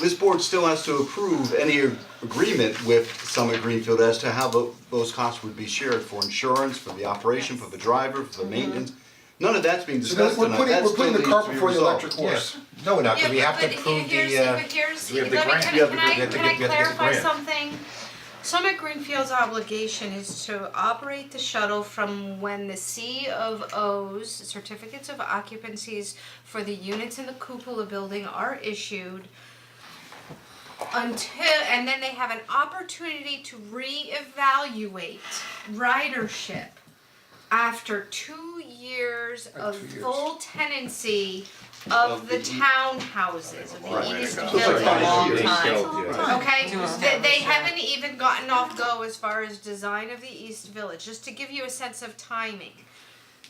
This board still has to approve any agreement with Summit Greenfield as to how tho- those costs would be shared for insurance, for the operation, for the driver, for the maintenance. None of that's being So then discussed we're tonight, putting, that we're still putting needs the to be cart before the resolved. electric horse. No, we're not, 'cause Yeah, we have but to approve the, here's, uh, but here's, we have let the me, grant. can Yeah, I, but can we I, have to can get- I we have to get the clarify grant. something? Summit Greenfield's obligation is to operate the shuttle from when the C of O's, certificates of occupancies for the units in the cupola building are issued until, and then they have an opportunity to reevaluate ridership after two years of two years. full tenancy of the townhouses, of the East It's Village. like five Long years. time. yeah. Okay, they, they haven't even gotten off go as far as design of the East Village, just to give you a sense of timing.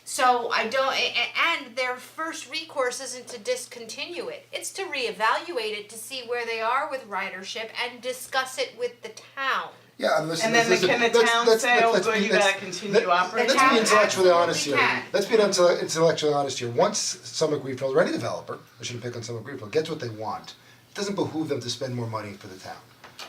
So I don't, a- a- and their first recourse isn't to discontinue it, it's to reevaluate it to see where they are with ridership and discuss it with the town. Yeah, and listen, And then this the- is a- can the that's- town that's- say, oh, let's good, be- you let's- gotta continue let- operating? Let's be The town intellectually honest here. absolutely can. Let's be intell- intellectually honest here. Once Summit Greenfield or any developer, I shouldn't pick on Summit Greenfield, gets what they want, it doesn't behoove them to spend more money for the town.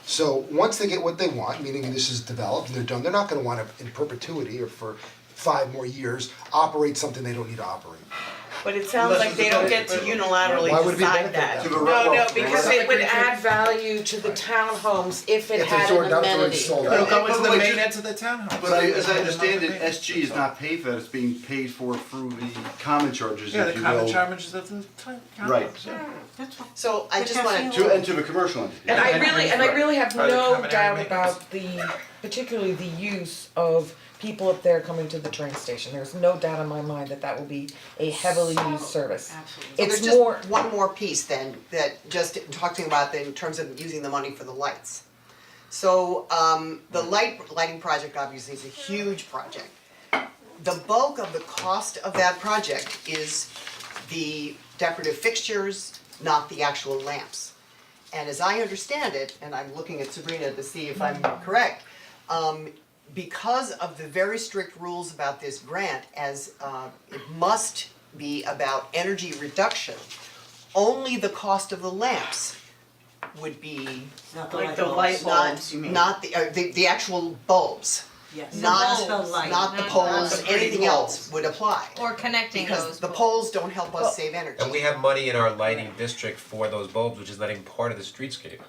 So once they get what they want, meaning this is developed and they're done, they're not gonna wanna in perpetuity or for five more years, operate something they don't need to operate. But it sounds like they don't get to unilaterally Why would it be decide benefit that. them? To the No, no, railroad. because it would add value to the townhomes if it If they had sort an it out, they're amenity. installed. go It'll go into into the the main main end of the townhouse. But I, as I understand it, SG is not paid for that, it's being paid for through the common charges, Yeah, the if you will. common charges of the town, Right. townhouse, yeah. So I just wanna To enter the commercial entity. And I really, and I really have Are they no coming out of doubt maintenance? about the, particularly the use of people up there coming to the train station, there's no doubt in my mind that that will be a heavily used service. So there's It's more, just one more piece then, that just talking about the- in terms of using the money for the lights. So um the light lighting project obviously is a huge project. The bulk of the cost of that project is the decorative fixtures, not the actual lamps. And as I understand it, and I'm looking at Sabrina to see if I'm correct, um, because of the very strict rules about this grant, as uh, it must be about energy reduction, only the cost of the lamps would be Not the Like light the bulbs. light bulbs, not, you mean? not the, uh, the, the actual bulbs, Yes. not, the light. not the Not poles, the anything pretty else would apply. Or connecting those. Because the poles don't help us save energy. And we have money in our lighting district for those bulbs, which is letting part of the streetscape.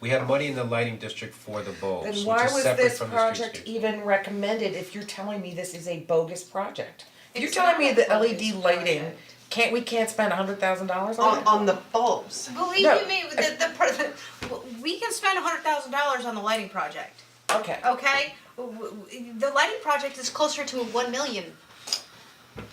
We have money in the lighting district for the bulbs, then which why is was separate this from the streetscape. project even recommended if you're telling me this is a bogus project? If You're It's telling not me a that bogus LED lighting, project. can't, we can't spend a hundred thousand dollars on it? On, on the bulbs, Believe No. you me, the, the, per- the, we can spend a hundred thousand dollars on the lighting project. Okay. okay? W- w- The lighting project is closer to one million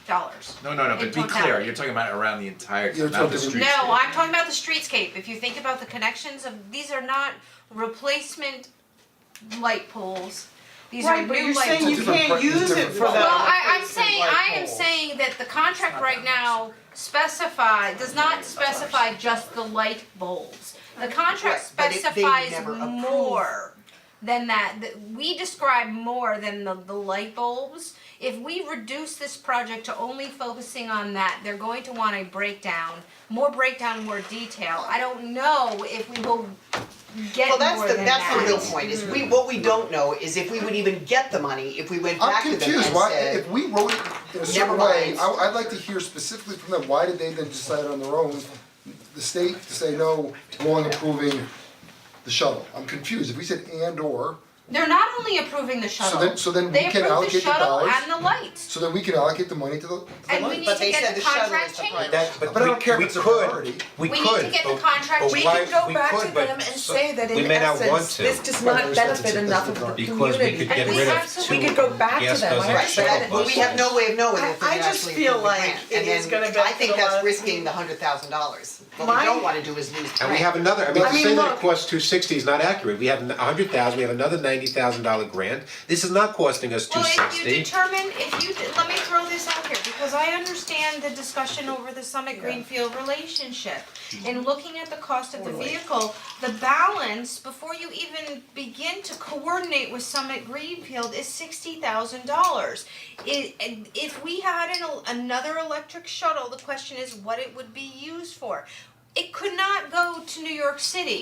dollars. No, no, no, but be clear, you're talking about around the entire, You're town, not the talking- street. No, I'm talking about the streetscape, if you think about the connections of, these are not replacement light poles. These are Right, but new you're light saying poles. you It's a different can't pri- it's use it different for that. price. Well, I I'm replacement saying, light I am bulb. saying that the contract right now specify, does not specify just the light bulbs. The contract Right, but it- they would specifies never approve. more than that, Th- we describe more than the the light bulbs. If we reduce this project to only focusing on that, they're going to want a breakdown, more breakdown, more detail. I don't know if we will get well, more than that's the, that's the that. real point, is we, what we don't know is if we would even get the money, if we went back to them and I'm confused, why, said- if we wrote it in a certain Never way, mind. I I'd like to hear specifically from them, why did they then decide on their own, the state to say no, we're only approving the shuttle, I'm confused, if we said and or, They're not only approving the shuttle. then- so then we They can approve the allocate the shuttle dollars. and the lights. so then we can allocate the money to the, to the And we light. need But to they get said the the shuttle contract is the changed. priority. That, but But I we, don't care if we it's a could, priority. we We could, need to get the but- contract but changed. We why- could go we back could, to but them and so- say that we in may not want essence, to. this does Right, not there's that's- benefit that's enough of the the dark. Because we could community. get we rid of two absolutely- We could go back to gas them, guzzling I Right, but I- shuttle understand. but we have no way of knowing if I- I they just actually feel approve the like grant, it and is then gonna I benefit a think lot of that's risking people. the hundred thousand dollars. What My- we don't wanna do is lose the And grant. we have another, I mean, I to mean, say that look- it costs two sixty is not accurate, we have a hundred thousand, we have another ninety thousand dollar grant, this is not costing us two Well, if you sixty. determine, if you, let me throw this out here, because I understand the discussion over the Summit Greenfield relationship. Mm-hmm. In looking at the cost of the vehicle, the balance, before you even begin to coordinate with Summit Greenfield, is sixty thousand dollars. It, and if we had an, el- another electric shuttle, the question is what it would be used for. it could not go to New York City